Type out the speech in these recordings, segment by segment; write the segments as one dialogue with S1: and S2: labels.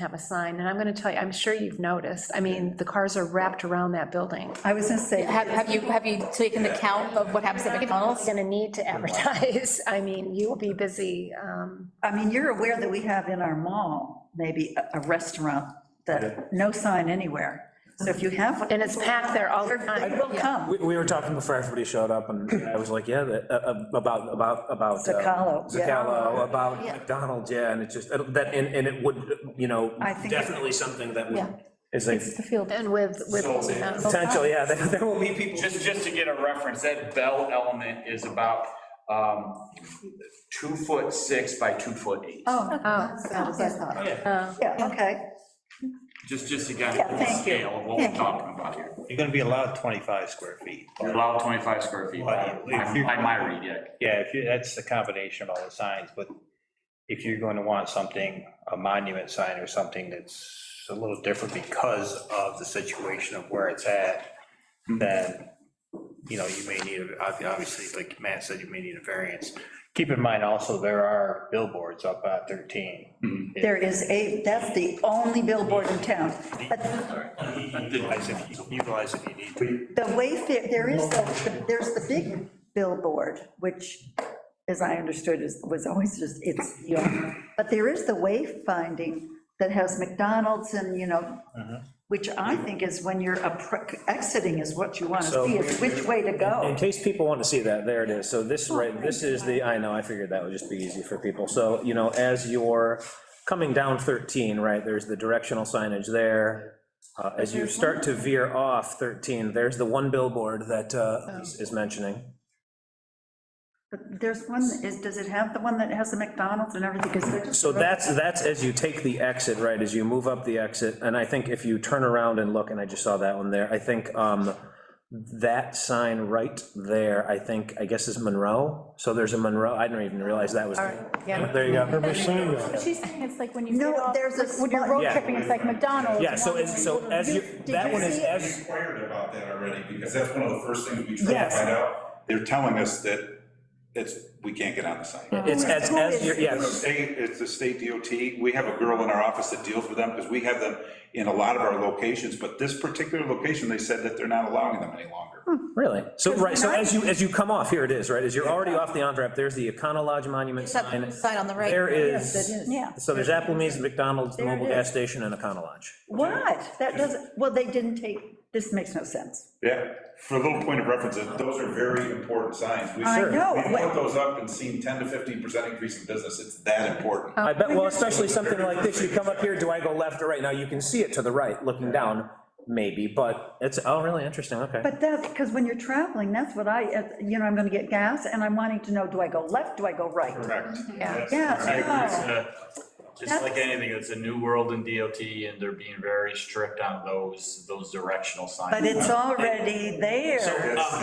S1: have a sign, and I'm gonna tell you, I'm sure you've noticed, I mean, the cars are wrapped around that building.
S2: I was gonna say,
S3: Have, have you, have you taken the count of what happens at
S1: It's
S3: McDonald's?
S1: gonna need to advertise, I mean, you'll be busy, um,
S2: I mean, you're aware that we have in our mall, maybe a- a restaurant that, no sign anywhere. So if you have.
S1: and it's packed there all the
S2: It
S1: time.
S2: will come,
S4: We, we were talking before everybody showed up, and I was like, yeah, that- uh, uh, about, about, about. uh,
S2: Zacalo, yeah.
S4: Zacalo, about McDonald's, yeah, and it just, it'll- that, and, and it would, you know,
S2: I think it-
S4: definitely something that would,
S3: Yeah.
S4: is like,
S1: And with, with, um,
S4: potential, yeah, there there will be people.
S5: Just, just to get a reference, that bell element is about um, two foot six by two foot eight.
S1: oh,
S2: yeah, okay.
S5: Just, just again,
S2: Yeah,
S5: the
S2: thank you.
S5: scale of what we're
S2: Thank you.
S5: talking about here.
S6: You're gonna be allowed 25 square feet.
S5: Allow 25 square feet, by
S6: Well, if
S5: by
S6: you-
S5: my read, yeah.
S6: Yeah, if you, that's the combination of all the signs, but if you're going to want something, a monument sign or something that's a little different because of the situation of where it's at, then, you know, you may need, a- ob- obviously, like Matt said, you may need a variance. Keep in mind also, there are billboards up at 13.
S2: There is a, that's the only billboard in town. But
S6: Utilize if you- utilize if you need to.
S2: The Wayfair, there is, the- there's the big billboard, which, as I understood, is, was always just, it's, you know, but there is the wayfinding that has McDonald's and, you know, which I think is when you're appro- exiting is what you want to
S4: So-
S2: see, is which way to
S4: In
S2: go.
S4: case people want to see that, there it is. So
S2: Oh,
S4: this, right, this is the, I know, I figured that would just be easy for people. So, you know, as you're coming down 13, right, there's the directional signage there. Uh, As you start to veer off 13, there's the one billboard that
S2: Oh.
S4: uh, is is mentioning.
S2: But There's one, is, does it have the one that has the McDonald's and everything? 'Cause they're just-
S4: So that's, that's as you take the exit, right, as you move up the exit, and I think if you turn around and look, and I just saw that one there, I think um, that sign right there, I think, I guess is Monroe, so there's a Monroe, I didn't even realize that was.
S1: yeah.
S4: There you go.
S7: Never seen that.
S3: She's saying it's like when you.
S2: No,
S3: get off-
S2: there's a
S3: like When you're
S2: small-
S3: road
S4: Yeah.
S3: tripping, it's like McDonald's.
S4: Yeah, so,
S3: one
S4: as- so
S3: way.
S4: as you, that
S3: you
S4: one is
S3: see it?
S4: as.
S8: inquired about that already, because that's one of the first things we tried to
S4: Yes.
S8: find out. They're telling us that it's, we can't get on the site.
S4: It's as, as, you're-
S8: The
S4: yes,
S8: state- It's the state DOT, we have a girl in our office that deals with them, because we have them in a lot of our locations, but this particular location, they said that they're not allowing them any longer.
S4: really. So, right, so as you, as you come off, here it is, right, as you're already off the on-ramp, there's the Econo Lodge Monument sign.
S3: Sign on the right.
S4: There
S2: Yes, it
S4: is,
S2: is. Yeah.
S4: so there's Applebee's, McDonald's, the
S2: There it
S4: mobile
S2: is.
S4: gas station, and Econo Lodge.
S2: What? That doesn't, well, they didn't take, this makes no sense.
S8: Yeah, for a little point of reference, those are very important signs. We-
S2: I know.
S8: We've put those up and seen 10 to 15% increase in business, it's that important.
S2: Oh.
S4: I bet, well, especially something like this, you come up here, do I go left or right? Now, you can see it to the right, looking down, maybe, but it's, oh, really interesting, okay.
S2: But that's, because when you're traveling, that's what I, uh, you know, I'm going to get gas, and I'm wanting to know, do I go left, do I go right?
S8: Correct.
S1: Uh,
S2: Yeah.
S5: uh, Just like anything, it's a new world in DOT and they're being very strict on those, those directional signs.
S2: But it's already there.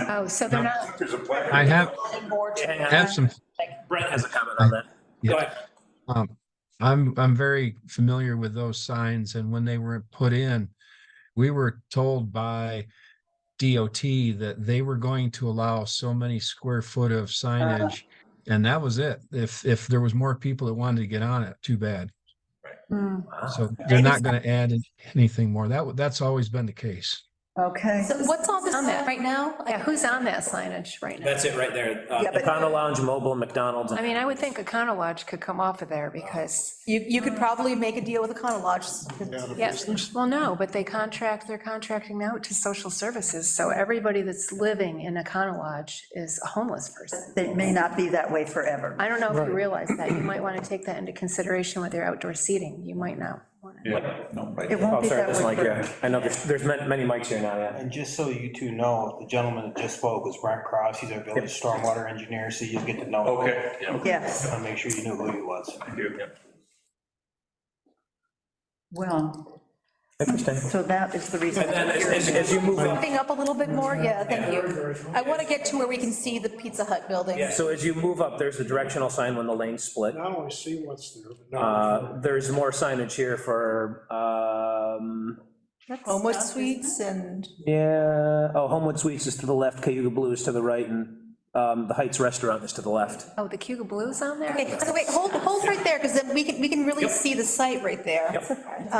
S1: Oh, so they're not,
S8: um, There's a plaque.
S7: I have,
S4: Hang on,
S7: have some,
S4: Brent has a comment on that. Go ahead.
S7: um, I'm, I'm very familiar with those signs and when they were put in, we were told by DOT that they were going to allow so many square foot of signage. And that was it. If, if there was more people that wanted to get on it, too bad.
S1: hmm,
S7: So they're not going to add anything more. That, wa- that's always been the case.
S2: Okay.
S3: So what's on this
S1: On that.
S3: right now?
S1: yeah, who's on that signage right now?
S4: That's it right there. Uh,
S2: Yeah, but-
S4: Econo Lounge, Mobile, McDonald's.
S1: I mean, I would think Econo Lodge could come off of there, because,
S3: You, you could probably make a deal with Econo Lodge.
S1: yes, well, no, but they contract, they're contracting out to social services, so everybody that's living in Econo Lodge is a homeless person.
S2: It may not be that way forever.
S1: I don't know if you realize that. You might want to take that into consideration with your outdoor seating. You might not. want to.
S8: Yeah, no, right.
S2: It won't
S4: Oh,
S2: be
S4: sorry,
S2: that
S4: this
S2: way
S4: mic,
S2: forever.
S4: yeah. I know, there's, there's ma- many mics here now, yeah.
S9: And just so you two know, the gentleman that just spoke was Brent Cross. He's our village stormwater engineer, so you'll get to know. him.
S8: Okay.
S2: Yes,
S9: And make sure you knew who he was.
S2: well,
S4: Interesting.
S2: so that is the reason.
S4: And then as- as, as you move up,
S3: Something up a little bit more? Yeah, thank you. I want to get to where we can see the Pizza Hut building.
S4: yeah, so as you move up, there's the directional sign when the lanes split.
S7: Not only see what's there, but
S4: Uh, There's more signage here for, um,
S3: Homewood Suites and.
S4: yeah, oh, Homewood Suites is to the left, Cayuga Blue is to the right, and uh, Um, The Heights Restaurant is to the left.
S1: Oh, the Cuba Blues on there?
S3: Okay, so wait, hold, hold right there, because then we can, we can really see the site right there.